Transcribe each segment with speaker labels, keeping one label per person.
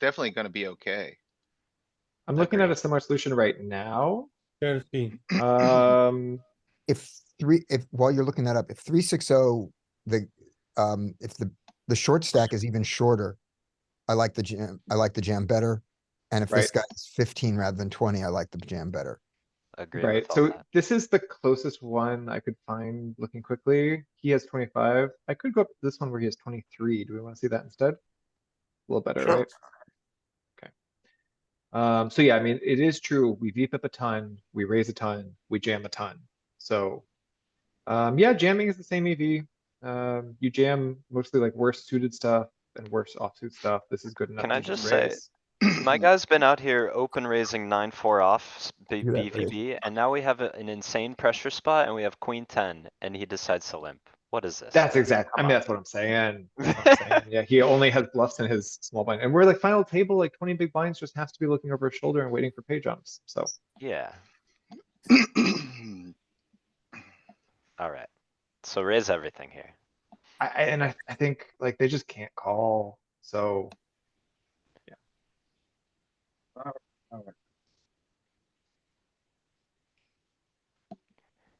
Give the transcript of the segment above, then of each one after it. Speaker 1: definitely gonna be okay.
Speaker 2: I'm looking at
Speaker 1: Agree.
Speaker 2: a similar solution right now.
Speaker 3: thirteen.
Speaker 2: Um,
Speaker 4: if three, if, while you're looking that up, if three, six, oh, the, um, if the, the short stack is even shorter, I like the jam, I like the jam better. And if this
Speaker 2: Right.
Speaker 4: guy is fifteen rather than twenty, I like the jam better.
Speaker 5: Agree
Speaker 2: right,
Speaker 5: with all
Speaker 2: so
Speaker 5: that.
Speaker 2: this is the closest one I could find looking quickly. He has twenty-five. I could go up to this one where he has twenty-three. Do we wanna see that instead? A little better,
Speaker 5: Sure.
Speaker 2: right? Okay. Um, so yeah, I mean, it is true. We VPIP a ton, we raise a ton, we jam a ton. So, um, yeah, jamming is the same EV. Um, you jam mostly like worse suited stuff and worse offsuit stuff. This is good enough.
Speaker 5: Can I
Speaker 2: to
Speaker 5: just say,
Speaker 2: raise.
Speaker 5: My guy's been out here open raising nine, four off s- B-
Speaker 4: Look at that raise.
Speaker 5: BVB, and now we have a- an insane pressure spot and we have queen ten, and he decides to limp. What is this?
Speaker 2: That's exact, I mean, that's what I'm saying. that's what I'm saying. Yeah, he only has bluffs in his small blind, and we're like final table, like twenty big blinds just has to be looking over his shoulder and waiting for pay jumps, so.
Speaker 5: Yeah,
Speaker 4: Hmm.
Speaker 5: alright. So raise everything here.
Speaker 2: I, I- and I, I think like they just can't call, so.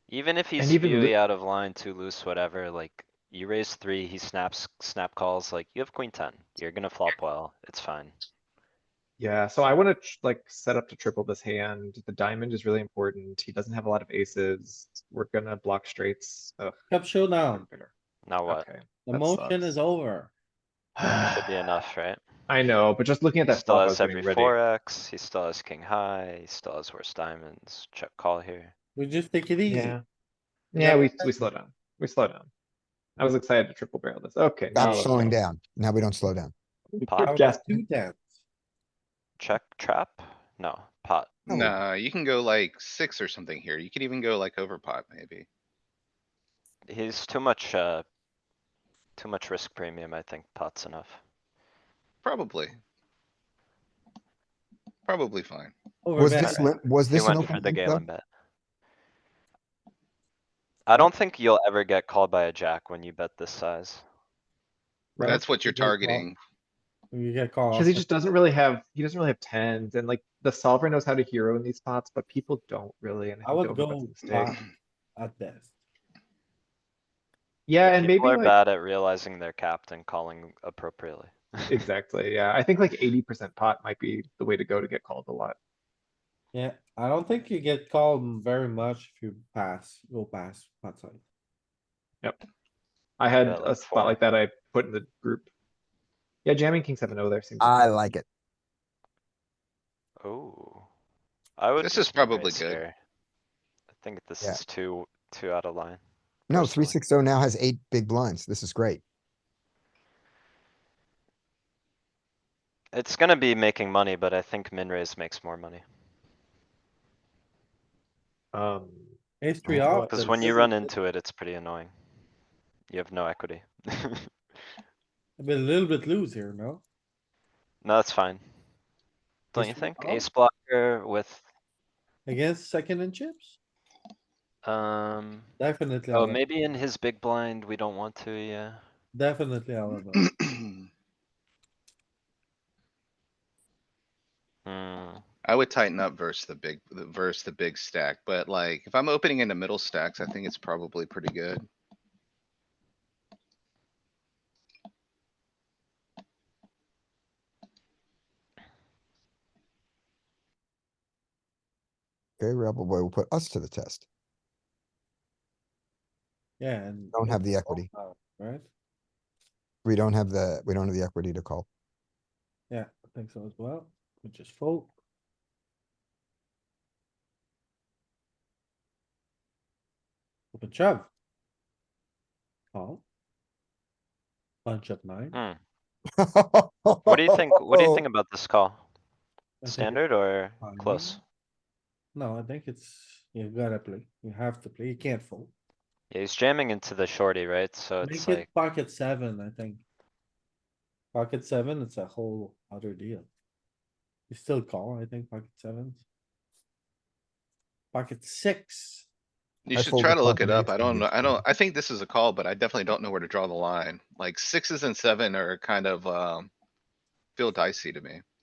Speaker 5: Even if he's
Speaker 2: And even
Speaker 5: really
Speaker 2: Lu-
Speaker 5: out of line, too loose, whatever, like, you raise three, he snaps, snap calls, like, you have queen ten, you're gonna flop well, it's fine.
Speaker 2: Yeah, so I wanna tr- like set up to triple this hand, the diamond is really important, he doesn't have a lot of aces, we're gonna block straights, ugh,
Speaker 3: Cup showdown.
Speaker 2: bigger,
Speaker 5: Now Oh. what?
Speaker 2: okay.
Speaker 3: The
Speaker 2: That
Speaker 3: motion
Speaker 2: sucks.
Speaker 3: is over.
Speaker 5: Should be enough, right?
Speaker 2: I know, but just looking at
Speaker 5: He
Speaker 2: that
Speaker 5: still
Speaker 2: flop, I was
Speaker 5: has
Speaker 2: getting
Speaker 5: every
Speaker 2: ready.
Speaker 5: four X, he still has king high, he still has worse diamonds, check call here.
Speaker 3: We just take it easy.
Speaker 2: Yeah. Yeah, we, we
Speaker 3: that's-
Speaker 2: slow down. We slow down. I was excited to triple barrel this. Okay. now
Speaker 4: Stop
Speaker 2: let's
Speaker 4: slowing
Speaker 2: go.
Speaker 4: down. Now we don't slow down.
Speaker 3: Out
Speaker 5: Pot,
Speaker 3: of
Speaker 2: Jeff.
Speaker 3: Two tens.
Speaker 5: check, trap? No, pot.
Speaker 1: Nah, you can go like six or something here. You could even go like over pot maybe.
Speaker 5: He's too much, uh. Too much risk premium, I think pot's enough.
Speaker 1: Probably. Probably fine.
Speaker 3: Over
Speaker 4: Was
Speaker 3: bet.
Speaker 4: this, lim- was
Speaker 5: He
Speaker 4: this an
Speaker 5: went for
Speaker 4: open
Speaker 5: the
Speaker 4: limp
Speaker 5: Galen
Speaker 4: though?
Speaker 5: bet. I don't think you'll ever get called by a jack when you bet this size.
Speaker 3: Right.
Speaker 1: That's what you're
Speaker 3: Good call.
Speaker 1: targeting.
Speaker 3: You get called.
Speaker 2: Cause he just doesn't really have, he doesn't really have tens and like the solver knows how to hero in these spots, but people don't really. and
Speaker 3: I
Speaker 2: think
Speaker 3: would
Speaker 2: the overbet's a
Speaker 3: go
Speaker 2: mistake.
Speaker 3: pot at this.
Speaker 2: Yeah, and maybe
Speaker 5: People are
Speaker 2: like,
Speaker 5: bad at realizing their captain calling appropriately.
Speaker 2: exactly, yeah. I think like eighty percent pot might be the way to go to get called a lot.
Speaker 3: Yeah, I don't think you get called very much if you pass, go pass, pot side.
Speaker 2: I had
Speaker 5: Yeah,
Speaker 2: a
Speaker 5: like
Speaker 2: spot like
Speaker 5: four.
Speaker 2: that I put in the group. Yeah, jamming king seven O there seems.
Speaker 4: I like it.
Speaker 5: Oh. I would.
Speaker 1: This
Speaker 5: just
Speaker 1: is probably
Speaker 5: raise
Speaker 1: good.
Speaker 5: here. I think this
Speaker 4: Yeah.
Speaker 5: is too, too out of line.
Speaker 4: No, three,
Speaker 5: personally.
Speaker 4: six, oh now has eight big blinds. This is great.
Speaker 5: It's gonna be making money, but I think min raise makes more money.
Speaker 2: Um,
Speaker 3: Ace three
Speaker 4: Oh,
Speaker 3: off.
Speaker 5: Cause
Speaker 3: but
Speaker 5: when
Speaker 3: this
Speaker 5: you
Speaker 3: is
Speaker 5: run
Speaker 3: a-
Speaker 5: into it, it's pretty annoying. You have no equity.
Speaker 3: I've been a little bit loose here, no?
Speaker 5: No, that's fine. Don't you
Speaker 3: Ace three
Speaker 5: think?
Speaker 3: off?
Speaker 5: Ace blocker with,
Speaker 3: Against second and chips?
Speaker 5: um,
Speaker 3: Definitely,
Speaker 5: oh,
Speaker 3: out of-
Speaker 5: maybe in his big blind, we don't want to, yeah.
Speaker 3: definitely, out of it.
Speaker 5: Hmm,
Speaker 1: I would tighten up versus the big, the- versus the big stack, but like, if I'm opening into middle stacks, I think it's probably pretty good.
Speaker 4: Okay, Rebel Boy will put us to the test.
Speaker 3: yeah, and.
Speaker 4: Don't have the equity.
Speaker 3: Right?
Speaker 4: We don't have the, we don't have the equity to call.
Speaker 3: Yeah, I think so as well, which is fold. Open shove. Call. Bunch of nine.
Speaker 5: hmm. What do you think, what do you think about this call?
Speaker 3: I think it's
Speaker 5: Standard or
Speaker 3: fine.
Speaker 5: close?
Speaker 3: No, I think it's, you gotta play, you have to play, you can't fold.
Speaker 5: Yeah, he's jamming into the shorty, right? So it's
Speaker 3: Make
Speaker 5: like,
Speaker 3: it pocket seven, I think. Pocket seven, it's a whole other deal. You still call, I think, pocket sevens. Pocket six.
Speaker 1: You
Speaker 4: I
Speaker 1: should
Speaker 4: fold
Speaker 1: try
Speaker 4: the
Speaker 1: to
Speaker 4: call
Speaker 1: look
Speaker 4: to
Speaker 1: it up.
Speaker 4: raise
Speaker 1: I
Speaker 4: to
Speaker 1: don't know.
Speaker 4: raise
Speaker 1: I don't,
Speaker 4: hand.
Speaker 1: I think this is a call, but I definitely don't know where to draw the line. Like sixes and seven are kind of, um. feel dicey to me.